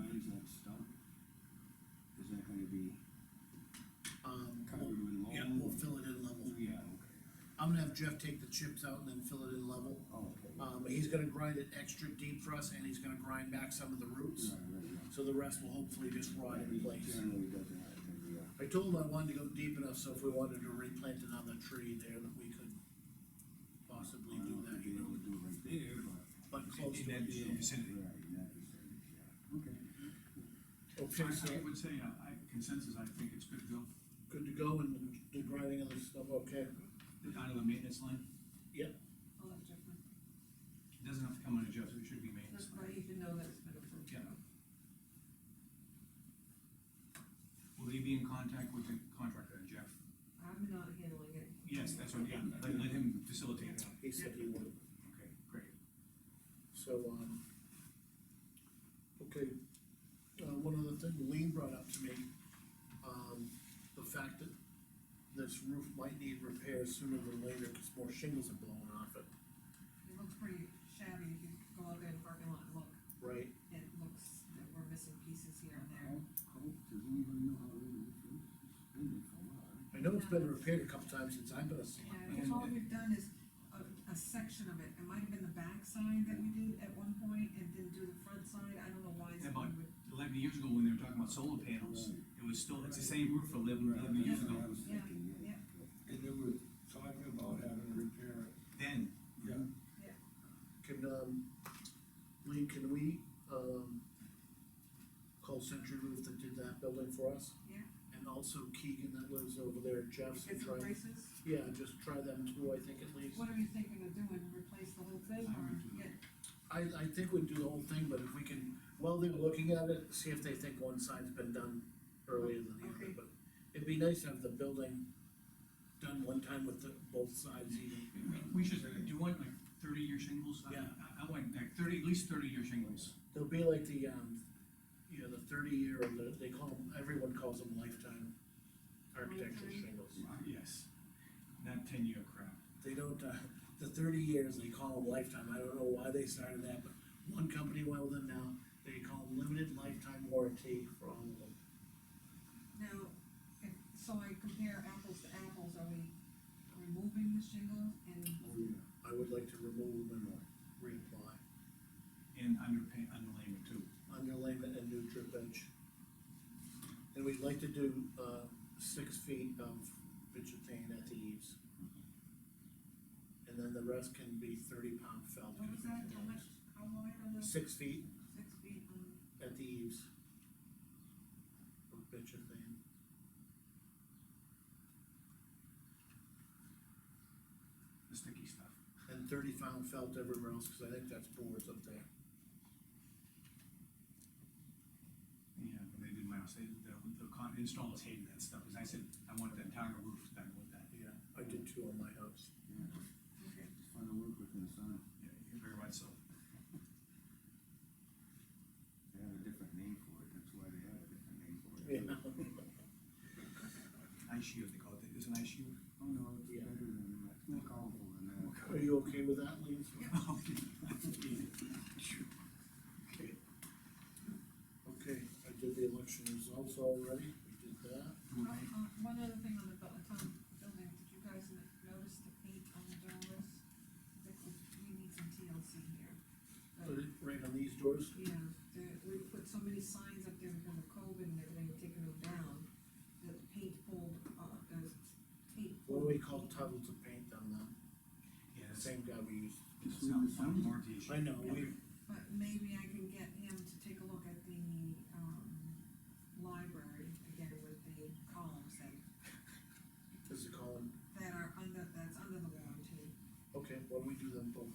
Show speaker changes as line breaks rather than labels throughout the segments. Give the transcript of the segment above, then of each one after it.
um,
Oh,
have Jeff take the chips out and then fill it in level.
Oh, okay.
Uh,
Um, he's gonna grind it extra deep for us, and he's gonna grind back some of the roots,
Yeah, right, yeah.
so the rest will hopefully just rot in place.
Generally doesn't have to be, uh,
I told him I wanted to go deep enough, so if we wanted to replant another tree there, that we could possibly
I
do
don't know
that,
if you'd
you
be
know,
able to do it right there, but.
but close
In
to
that
it.
vicinity.
Right, in that vicinity, yeah. Okay.
Okay, so,
I would say, uh, I consensus, I think it's good to go,
good to go, and the grinding of the stuff, okay?
out of the maintenance line,
I'll let Jeff know.
it doesn't have to come under Jeff's, it should be maintenance
That's
line.
why you should know that's been approved.
Yeah. Will they be in contact with the contractor, Jeff?
I'm not handling it.
Yes, that's what, yeah, let, let him facilitate that.
He said he would,
Okay, great.
so, um, okay, uh, one other thing Lean brought up to me, um, the fact that this roof might need repairs sooner than later, cause more shingles are blowing off it,
It looks pretty shabby if you go out there in the parking lot and look.
right?
It looks that we're missing pieces here and there.
How, how, does anybody know how old this is? It's been there for a while.
I know it's been repaired a couple times since I've been a selectman.
Yeah, because all we've done is a, a section of it. It might have been the back side that we did at one point and didn't do the front side. I don't know why.
Yeah, but-
someone would-
Eleven years ago, when they were talking about solar panels, it was still, it's the same roof for 11 11 years ago,
I was
Yeah,
thinking,
yeah.
And they were talking about having to repair it.
then,
Yeah.
Can, um, Lee, can we, um, call Century Roof that did that building for us?
Yeah.
And also Keegan that lives over there, Jeff's,
Get
and
some
try,
braces.
yeah, just try them too, I think at least.
What are you thinking of doing? Replace the whole thing
I
or
would do
get,
I, I think we'd do the whole thing, but if we can, while they're looking at it, see if they think one side's been done earlier than the other,
Okay.
but it'd be nice to have the building done one time with the, both sides even.
we should, do you want like thirty-year shingles? I-
Yeah.
I, I want like thirty, at least thirty-year shingles.
They'll be like the, um, you know, the thirty year, or the, they call them, everyone calls them lifetime architectural
Lifetime.
shingles.
Yes, not ten-year crap.
They don't, uh, the thirty years, they call them lifetime, I don't know why they started that, but one company went with them now, they call them limited lifetime warranty for all of them.
Now, if, so I compare apples to apples, are we removing the shingles and,
Oh, yeah.
Um, I would like to remove them and reapply,
And underpaint, underlayment too.
underlayment and new drip edge. And we'd like to do, uh, six feet of vegetation at the eaves. And then the rest can be thirty pound felt.
what was that, how much, how wide on this,
Six feet
six feet on?
at the eaves. Of vegetation.
the sticky stuff.
and thirty pound felt everywhere else, cause I think that's boards up there.
Yeah, when they did my house, they, the, the con, installers hated that stuff, because I said, I want the entire roof done with that.
Yeah. I did two on my house.
Yeah,
Okay.
it's fun to work with in the sun.
Yeah, you're very right, so.
They have a different name for it, that's why they have a different name for it.
Yeah.
Ice shield, they call it, is an ice shield?
Oh, no, it's
Yeah.
better than that, it's more powerful than that.
Are you okay with that, Lee?
Okay.
Okay. Okay, I did the election results already, we did that.
Uh, uh, One other thing on the bu- town building, did you guys n- notice the paint on the doors? That was- We need some TLC here.
Put it right on these doors.
Yeah, the- we put so many signs up there with the cove and everything, taking them down, that the paint pulled, uh, the tape.
What do we call
pulled.
tunnels of paint on them? The
Yeah, that's,
same guy we used.
that's not, not warranty issue.
I know, we,
But maybe I can get him to take a look at the, um, library, again, with the columns that,
this is calling,
that are under, that's under the warranty.
okay, why don't we do them both?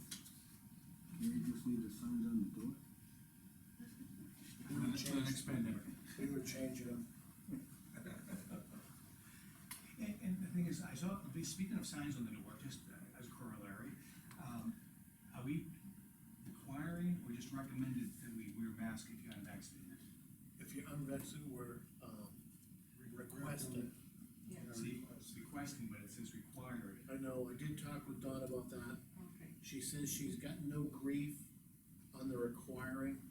You just need the signs on the door?
For the next- for the next pandemic.
We were changing them.
And, and the thing is, I saw, speaking of signs on the door, just uh, as a corollary, um, are we requiring or just recommended that we wear masks if you're unvaccinated?
If you're unvaccinated, we're, um, requesting.
Yeah,
See, it's requesting, but it says required.
I know, I did talk with Don about that.
okay.
She says she's got no grief on the requiring,